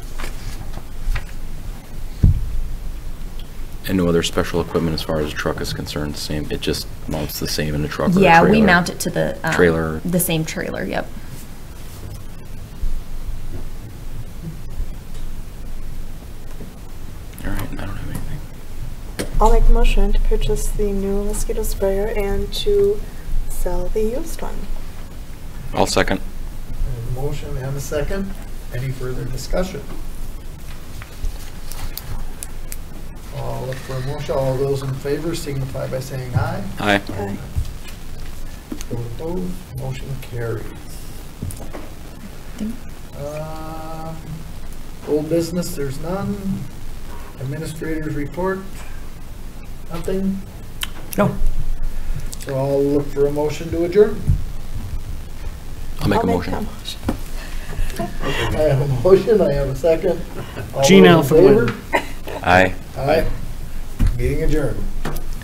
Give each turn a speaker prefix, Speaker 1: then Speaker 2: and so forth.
Speaker 1: And no other special equipment as far as a truck is concerned, same, it just mounts the same in a truck or a trailer?
Speaker 2: Yeah, we mount it to the. um,
Speaker 1: Trailer.
Speaker 2: The same trailer, yep.
Speaker 1: All right, I don't have anything.
Speaker 3: I'll make a motion to purchase the new mosquito sprayer and to sell the used one.
Speaker 1: I'll second.
Speaker 4: A Motion and a second. Any further discussion? All look for a motion. All those in favor signify by saying aye.
Speaker 1: Aye.
Speaker 3: Aye.
Speaker 4: Those opposed, motion carries.
Speaker 2: Think-
Speaker 4: Um, Old business, there's none. Administrators report, nothing.
Speaker 5: No.
Speaker 4: So I'll look for a motion to adjourn.
Speaker 1: I'll make
Speaker 3: I'll
Speaker 1: a motion.
Speaker 3: that motion.
Speaker 4: I have a motion, I have a second. All
Speaker 5: Gene
Speaker 4: those in
Speaker 5: Alphen went.
Speaker 4: favor?
Speaker 1: Aye.
Speaker 4: Aye. Meeting adjourned.